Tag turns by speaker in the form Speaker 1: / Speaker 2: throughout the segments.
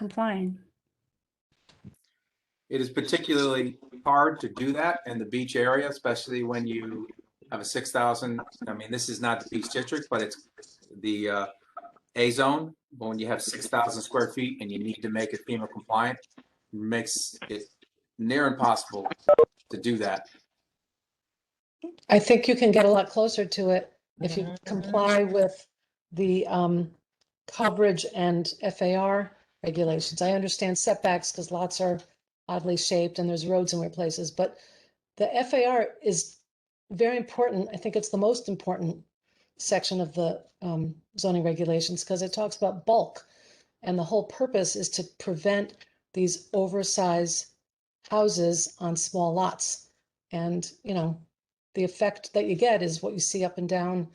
Speaker 1: complying.
Speaker 2: It is particularly hard to do that in the beach area, especially when you have a six thousand, I mean, this is not the beach district, but it's the uh, A zone. But when you have six thousand square feet and you need to make it FEMA compliant, makes it near impossible to do that.
Speaker 3: I think you can get a lot closer to it if you comply with the um, coverage and FAR regulations. I understand setbacks because lots are oddly shaped and there's roads in weird places, but the FAR is very important. I think it's the most important section of the um, zoning regulations because it talks about bulk. And the whole purpose is to prevent these oversized houses on small lots. And, you know, the effect that you get is what you see up and down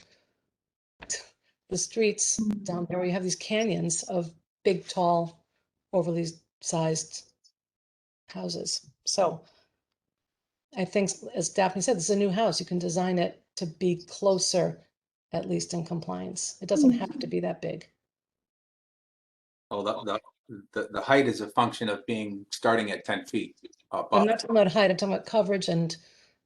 Speaker 3: the streets down there where you have these canyons of big, tall, overly sized houses. So I think, as Daphne said, this is a new house. You can design it to be closer, at least in compliance. It
Speaker 2: Hmm.
Speaker 3: doesn't have to be that big.
Speaker 2: Although the, the, the height is a function of being, starting at ten feet
Speaker 3: I'm
Speaker 2: above.
Speaker 3: not talking about height, I'm talking about coverage and.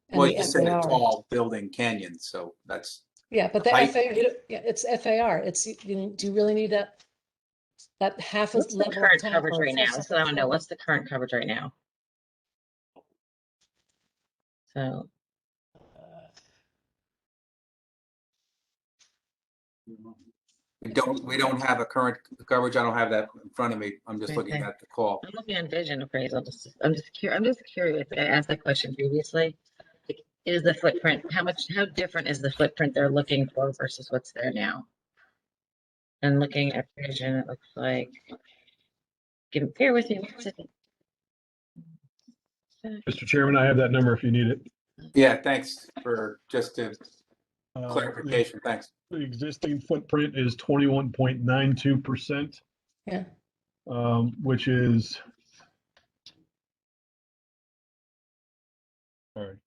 Speaker 3: and
Speaker 2: Well,
Speaker 3: the
Speaker 2: you said a
Speaker 3: FAR.
Speaker 2: tall building canyon, so that's,
Speaker 3: Yeah, but the
Speaker 2: I-
Speaker 3: FAR, you don't- yeah, it's FAR, it's, you- you, know, do you really need that? That half a
Speaker 4: What's the
Speaker 3: level. of
Speaker 4: current
Speaker 3: top
Speaker 4: coverage
Speaker 3: or a
Speaker 4: right
Speaker 3: full
Speaker 4: now? So
Speaker 3: second
Speaker 4: I want to know,
Speaker 3: floor?
Speaker 4: what's the current coverage right now? So,
Speaker 2: we don't, we don't have a current coverage. I don't have that in front of me. I'm just looking
Speaker 4: Okay.
Speaker 2: at the call.
Speaker 4: I'm looking at vision appraisal, just, I'm just curious, I'm just curious, I asked that question previously. Like, Is the footprint, how much, how different is the footprint they're looking for versus what's there now? And looking at vision, it looks like, give, bear with me one second.
Speaker 5: Mr. Chairman, I have that number if you need it.
Speaker 2: Yeah, thanks for just to
Speaker 5: Uh, the-
Speaker 2: clarification. Thanks.
Speaker 5: The existing footprint is twenty-one point nine two percent.
Speaker 3: Yeah.
Speaker 5: Um, which is. Sorry,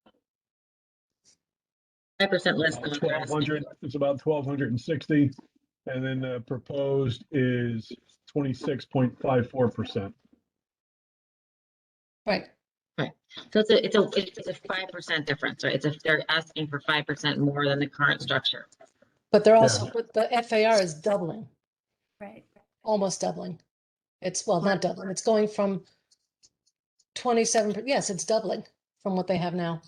Speaker 4: Five percent less than what they're
Speaker 5: twelve
Speaker 4: asking.
Speaker 5: hundred, it's about twelve hundred and sixty. And then uh, proposed is twenty-six point five four percent.
Speaker 3: Right,
Speaker 4: So it's a, it's a, it's a five percent difference, right? It's if they're asking for five percent more than the current structure.
Speaker 3: but they're also, but the FAR is doubling,
Speaker 1: Right.
Speaker 3: almost doubling. It's, well, not doubling, it's going from twenty-seven, per- yes, it's doubling from what they have now.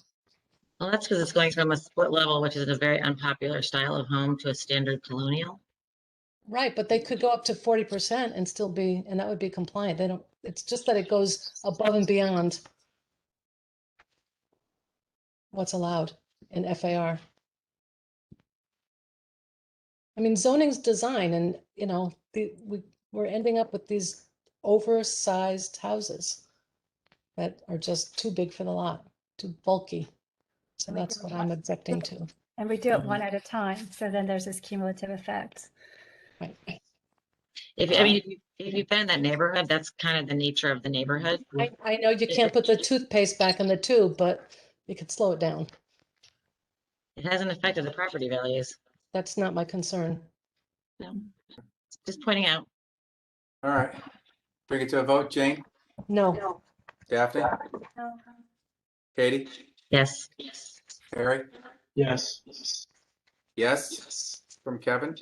Speaker 4: Well, that's because it's going from a split level, which is a very unpopular style of home, to a standard colonial.
Speaker 3: Right, but they could go up to forty percent and still be, and that would be compliant. They don't, it's just that it goes above and beyond what's allowed in FAR. I mean, zoning's design and, you know, the, we, we're ending up with these oversized houses that are just too big for the lot, too bulky. So
Speaker 1: And we
Speaker 3: that's
Speaker 1: do
Speaker 3: what
Speaker 1: have-
Speaker 3: I'm objecting to.
Speaker 1: And we do it one at a time. So then there's this cumulative effect.
Speaker 3: Right.
Speaker 4: If, I mean, if you- if you've been in that neighborhood, that's kind of the nature of the neighborhood.
Speaker 3: I, I know you can't put the toothpaste back in the tube, but you could slow it down.
Speaker 4: It hasn't affected the property values.
Speaker 3: That's not my concern.
Speaker 4: Just pointing out.
Speaker 2: All right. Bring it to a vote. Jane,
Speaker 3: No,
Speaker 2: Daphne,
Speaker 1: No.
Speaker 2: Katie,
Speaker 4: Yes.
Speaker 2: Harry?
Speaker 6: Yes.
Speaker 2: Yes, from Kevin.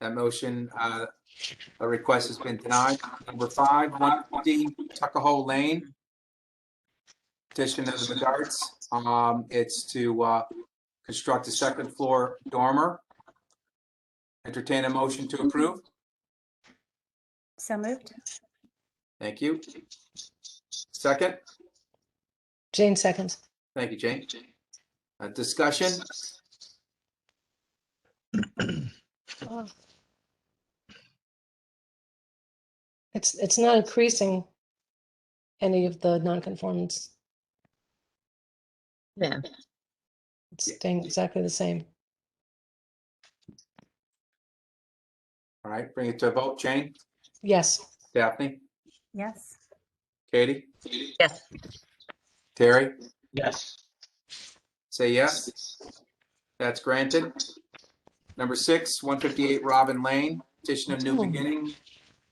Speaker 2: That motion, uh, a request has been denied. Number five, one fifty Tuckahoe Lane. Petition of the Medards. Um, it's to, uh, construct a second floor dormer. Entertain a motion to approve.
Speaker 1: So moved.
Speaker 2: Thank you. Second?
Speaker 3: Jane seconds.
Speaker 2: Thank you, Jane. Uh, discussion?
Speaker 3: It's, it's not increasing any of the nonconformance.
Speaker 4: Yeah.
Speaker 3: It's
Speaker 2: Yeah.
Speaker 3: staying exactly the same.
Speaker 2: All right, bring it to a vote. Jane,
Speaker 3: Yes,
Speaker 2: Daphne,
Speaker 1: Yes.
Speaker 2: Katie,
Speaker 4: Yes.
Speaker 2: Terry,
Speaker 6: Yes.
Speaker 2: say yes. That's granted. Number six, one fifty-eight Robin Lane, petition of New
Speaker 3: Oh.
Speaker 2: Beginning